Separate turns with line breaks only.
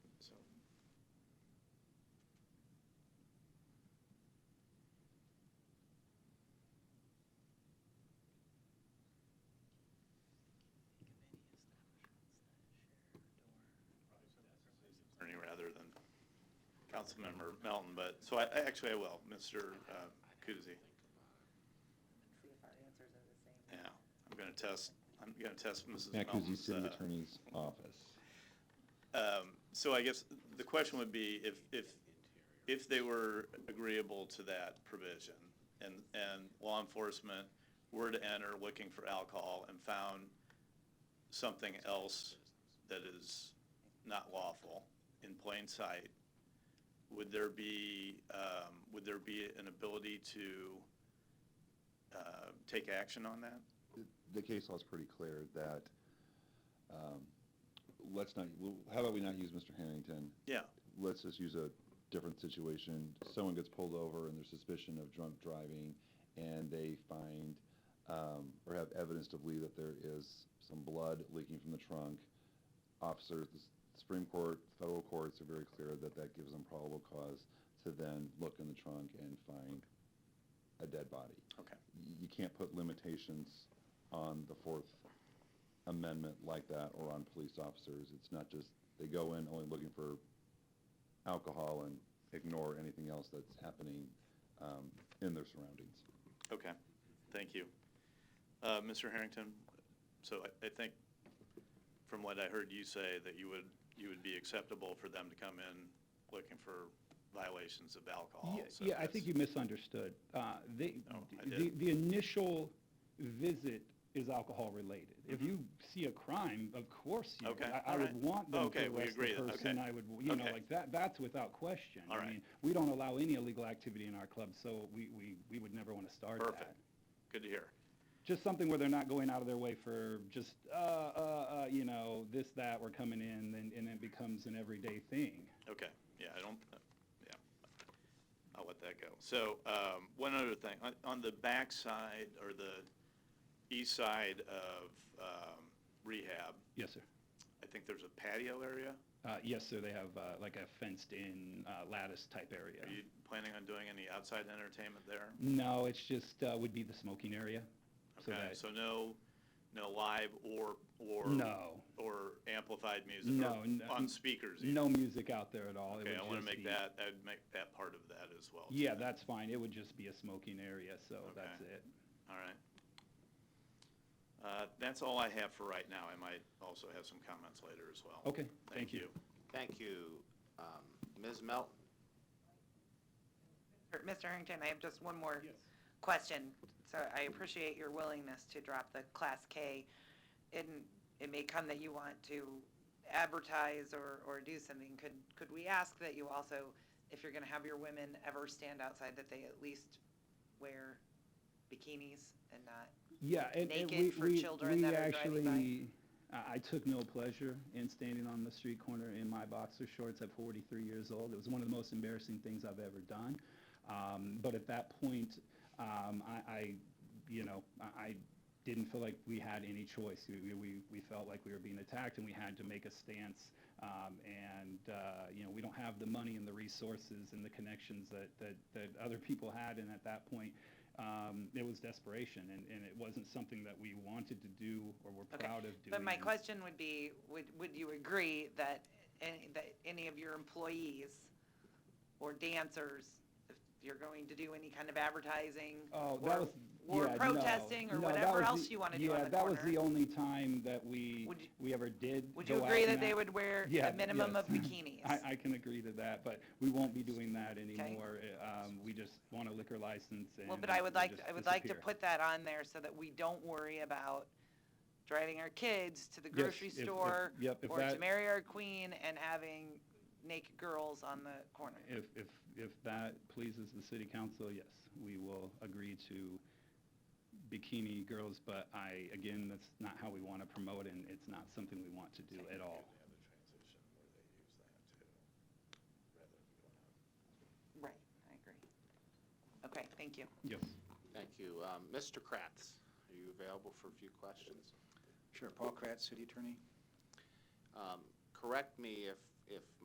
Councilmember Melton, but, so I, I- actually I will, Mr. uh, Kuzi.
see if our answers are the same.
Yeah, I'm gonna test, I'm gonna test Mrs.
Matt Kuzi,
Melton's.
City
uh,
Attorney's Office.
um, So I guess the question would be if, if, if they were agreeable to that provision and, and law enforcement were to enter looking for alcohol and found something else that is not lawful in plain sight, would there be, um, would there be an ability to, uh, take action on that?
The- The case law is pretty clear that, um, let's not, well, how about we not use Mr. Harrington?
Yeah,
Let's just use a different situation. Someone gets pulled over and there's suspicion of drunk driving and they find, um, or have evidence to believe that there is some blood leaking from the trunk. Officers, the Supreme Court, federal courts are very clear that that gives them probable cause to then look in the trunk and find a dead body
okay.
y- you can't put limitations on the Fourth Amendment like that or on police officers. It's not just, they go in only looking for alcohol and ignore anything else that's happening um, in their surroundings.
Okay, thank you. Uh, Mr. Harrington, so I, I think from what I heard you say, that you would, you would be acceptable for them to come in looking for violations of alcohol.
Yeah,
so
Yeah, I
that's-
think you misunderstood. Uh, The,
Oh, I
the,
did.
the initial visit is alcohol-related. If you see a crime, of course, you-
Mm-hmm. Okay,
I- I
all
would
right.
want them
Okay,
to
we
arrest
agree
the
then,
person.
okay.
I would, you know,
Okay.
like that, that's without question.
All
I
right.
mean, We don't allow any illegal activity in our club, so we, we, we would never want to start that.
Perfect. Good to hear.
Just something where they're not going out of their way for just, uh, uh, uh, you know, this, that, we're coming in, and, and it becomes an everyday thing.
Okay, yeah, I don't, yeah, I'll let that go. So, um, one other thing, on, on the back side or the east side of, um, rehab,
Yes, sir.
I think there's a patio area.
Uh, Yes, sir, they have uh, like a fenced-in uh, lattice-type area.
Are you planning on doing any outside entertainment there?
No, it's just, uh, would be the smoking area. So
Okay,
that-
so no, no live or, or?
No.
Or amplified music?
No,
or
n-
On speakers? even?
No music out there at all. It
Okay,
would
I want to
just
make
be-
that, I'd make that part of that as well.
Yeah, that's fine. It would just be a smoking area, so
Okay.
that's it.
All right. Uh, That's all I have for right now. I might also have some comments later as well.
Okay, thank you.
Thank you. Um, Ms. Melton?
Er, Mr. Harrington, I have just one more question. So I appreciate your willingness to drop the Class K. And it may come that you want to advertise or, or do something. Could, could we ask that you also, if you're going to have your women ever stand outside, that they at least wear bikinis and not?
Yeah, and and
Naked
we,
for
we,
children
we
that are driving by.
actually, I I took no pleasure in standing on the street corner in my boxer shorts at 43 years old. It was one of the most embarrassing things I've ever done. Um, But at that point, um, I, I, you know, I I didn't feel like we had any choice. We- We, we, we felt like we were being attacked and we had to make a stance. Um, And, uh, you know, we don't have the money and the resources and the connections that, that, that other people had. And at that point, um, it was desperation and, and it wasn't something that we wanted to do or were
Okay.
proud of doing.
But my question would be, would, would you agree that, any- that any of your employees or dancers, if you're going to do any kind of advertising?
Oh, that
or-
was,
Or
yeah, no,
protesting or
no, that
whatever
was
else
the-
you want to do on the
Yeah, that was the
corner?
only time that we,
Would you-
we ever did
Would you
go out
agree
and
that they
act-
would wear
Yeah,
a minimum
yes.
of bikinis?
I, I can agree to that, but we won't be doing that anymore. Uh, Um, we just want a liquor license and.
Well, but I would
we'll
like,
just
I would like to
disappear.
put that on there so that we don't worry about driving our kids to the
Yes,
grocery
if- if-
store
yep, if
or to
that-
marry our queen and having naked girls on the corner.
If, if, if that pleases the city council, yes, we will agree to bikini girls, but I, again, that's not how we want to promote and it's not something we want to do at all.
Right, I agree. Okay, thank you.
Yes.
Thank you. Um, Mr. Kratz, are you available for a few questions?
Sure, Paul Kratz, City Attorney.
Um, Correct me if, if